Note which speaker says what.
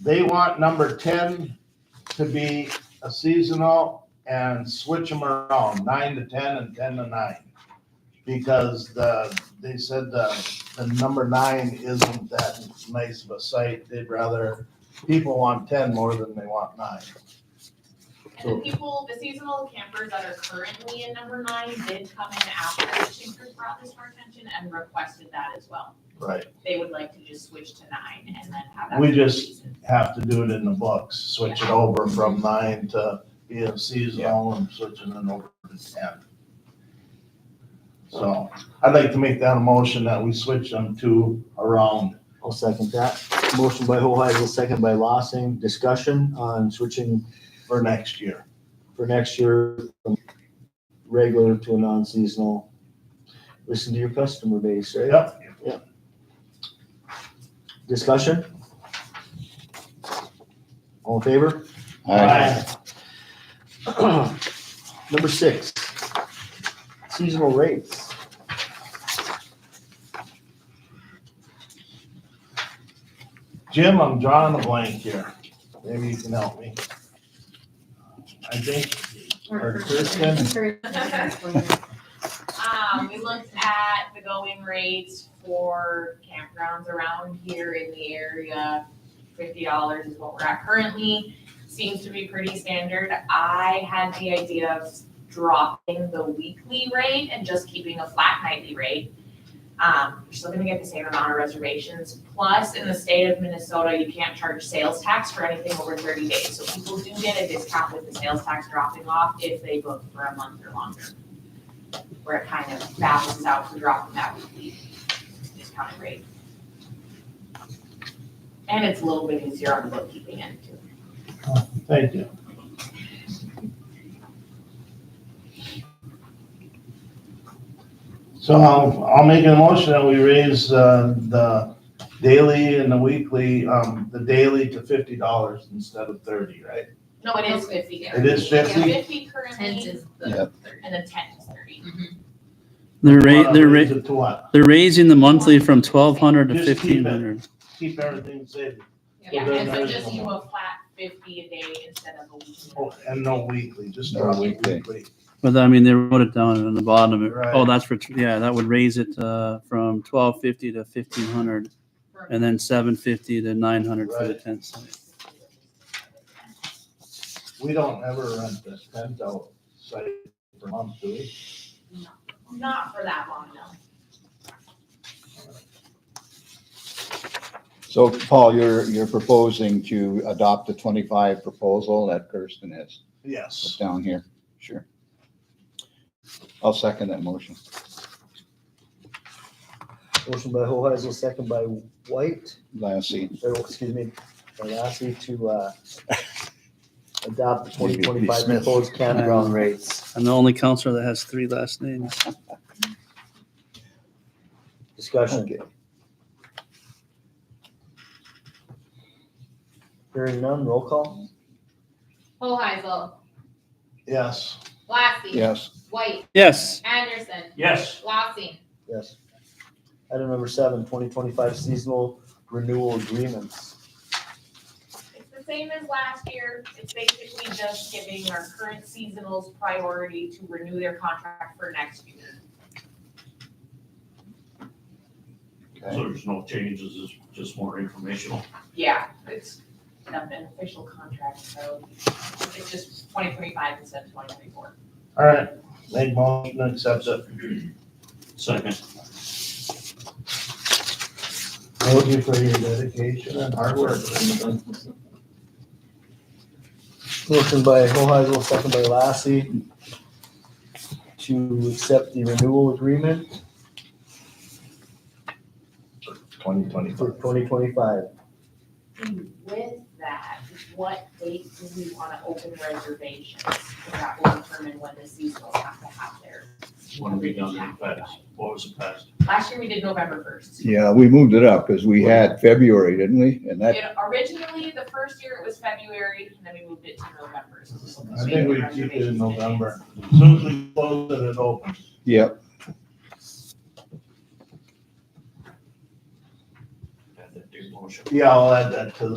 Speaker 1: They want number ten to be a seasonal and switch them around, nine to ten and ten to nine. Because the, they said the, the number nine isn't that nice of a site. They'd rather, people want ten more than they want nine.
Speaker 2: And
Speaker 1: So-
Speaker 2: the people, the seasonal campers that are currently in number nine did come in after the fishing crews brought this to our attention and requested that as well.
Speaker 1: Right,
Speaker 2: They would like to just switch to nine and then have that.
Speaker 1: We
Speaker 2: for the
Speaker 1: just-
Speaker 2: season.
Speaker 1: have to do it in the books, switch it over from nine to being seasonal and switching it over to ten. So I'd like to make that a motion that we switch them to around.
Speaker 3: I'll second that. Motion by Hoheisel, second by Lossing. Discussion on switching
Speaker 1: for next year.
Speaker 3: for next year from regular to a non-seasonal. Listen to your customer base, right?
Speaker 1: Yep.
Speaker 3: Discussion? All in favor? Uh,
Speaker 1: Aye.
Speaker 3: Number six, seasonal rates.
Speaker 1: Jim, I'm drawing a blank here. Maybe you can help me. I think, or Kristen,
Speaker 2: Um, we looked at the going rates for campgrounds around here in the area. Fifty dollars is what we're at currently, seems to be pretty standard. I had the idea of dropping the weekly rate and just keeping a flat nightly rate. Um, you're still gonna get the same amount of reservations, plus in the state of Minnesota, you can't charge sales tax for anything over thirty days. So people do get a discount with the sales tax dropping off if they book for a month or longer where it kind of balances out for dropping that weekly discounted rate. And it's a little bit easier on the bookkeeping end too.
Speaker 1: thank you. So I'll, I'll make a motion that we raise, uh, the daily and the weekly, um, the daily to fifty dollars instead of thirty, right?
Speaker 2: No, it is fifty.
Speaker 1: It is 50?
Speaker 2: Fifty currently,
Speaker 4: is
Speaker 2: and the ten is thirty.
Speaker 5: They're ra-
Speaker 1: Uh,
Speaker 5: they're
Speaker 1: raise
Speaker 5: ra-
Speaker 1: it To what?
Speaker 5: they're raising the monthly from twelve hundred to
Speaker 1: Just keep it.
Speaker 5: fifteen hundred.
Speaker 1: Keep everything safe,
Speaker 2: Yeah,
Speaker 1: Well,
Speaker 2: and
Speaker 1: then
Speaker 2: so
Speaker 1: there's
Speaker 2: just
Speaker 1: no
Speaker 2: you a flat fifty a day instead of a weekly.
Speaker 1: Oh, and no weekly, just
Speaker 6: No
Speaker 1: drop it
Speaker 6: weekly.
Speaker 1: weekly.
Speaker 5: But I mean, they wrote it down in the bottom. It- Oh,
Speaker 1: Right.
Speaker 5: that's for, yeah, that would raise it, uh, from twelve fifty to fifteen hundred and then seven fifty to nine hundred for the
Speaker 1: Right.
Speaker 5: tent site.
Speaker 1: We don't ever rent this tent out site for months, do we?
Speaker 2: Not for that long, no.
Speaker 6: So Paul, you're, you're proposing to adopt the twenty-five proposal that Kirsten has put
Speaker 1: Yes.
Speaker 6: down here. Sure. I'll second that motion.
Speaker 3: Motion by Hoheisel, second by White.
Speaker 6: Last seat.
Speaker 3: or, excuse me, Lassie to uh, adopt the
Speaker 6: Maybe
Speaker 3: twenty
Speaker 6: it'd be
Speaker 3: twenty-five
Speaker 6: Smith.
Speaker 3: proposed campground rates.
Speaker 5: I'm the only counselor that has three last names.
Speaker 3: Discussion. Hearing none, roll call?
Speaker 4: Oh, Hoheisel,
Speaker 1: Yes.
Speaker 4: Lassie.
Speaker 6: Yes,
Speaker 4: White,
Speaker 5: Yes,
Speaker 4: Anderson,
Speaker 1: Yes.
Speaker 4: Lassie.
Speaker 3: Yes. Item number seven, 2025 seasonal renewal agreements.
Speaker 2: It's the same as last year. It's basically just giving our current seasonals priority to renew their contract for next year.
Speaker 7: So there's no changes, it's just more informational.
Speaker 2: Yeah, it's not an official contract, so it's just twenty twenty-five instead of twenty twenty-four.
Speaker 1: All right, make motion, accept it.
Speaker 7: Second,
Speaker 1: Thank you for your dedication and hard work.
Speaker 3: Motion by Hoheisel, second by Lassie to accept the renewal agreement
Speaker 1: Twenty
Speaker 3: for
Speaker 1: twenty-five.
Speaker 3: twenty twenty-five.
Speaker 2: And with that, what date do we want to open reservations? That will determine when the seasonals have to have their.
Speaker 7: one to be done in the past. What was the past?
Speaker 2: Last year, we did November first.
Speaker 6: yeah, we moved it up because we had February, didn't we? And that,
Speaker 2: It originally, the first year, it was February, and then we moved it to November. so this will
Speaker 1: I
Speaker 2: be
Speaker 1: think we
Speaker 2: the
Speaker 1: keep it in
Speaker 2: reservations.
Speaker 1: November. As Soon as we close it, it opens.
Speaker 6: yeah,
Speaker 7: Add that to your motion.
Speaker 1: Yeah, I'll add that to the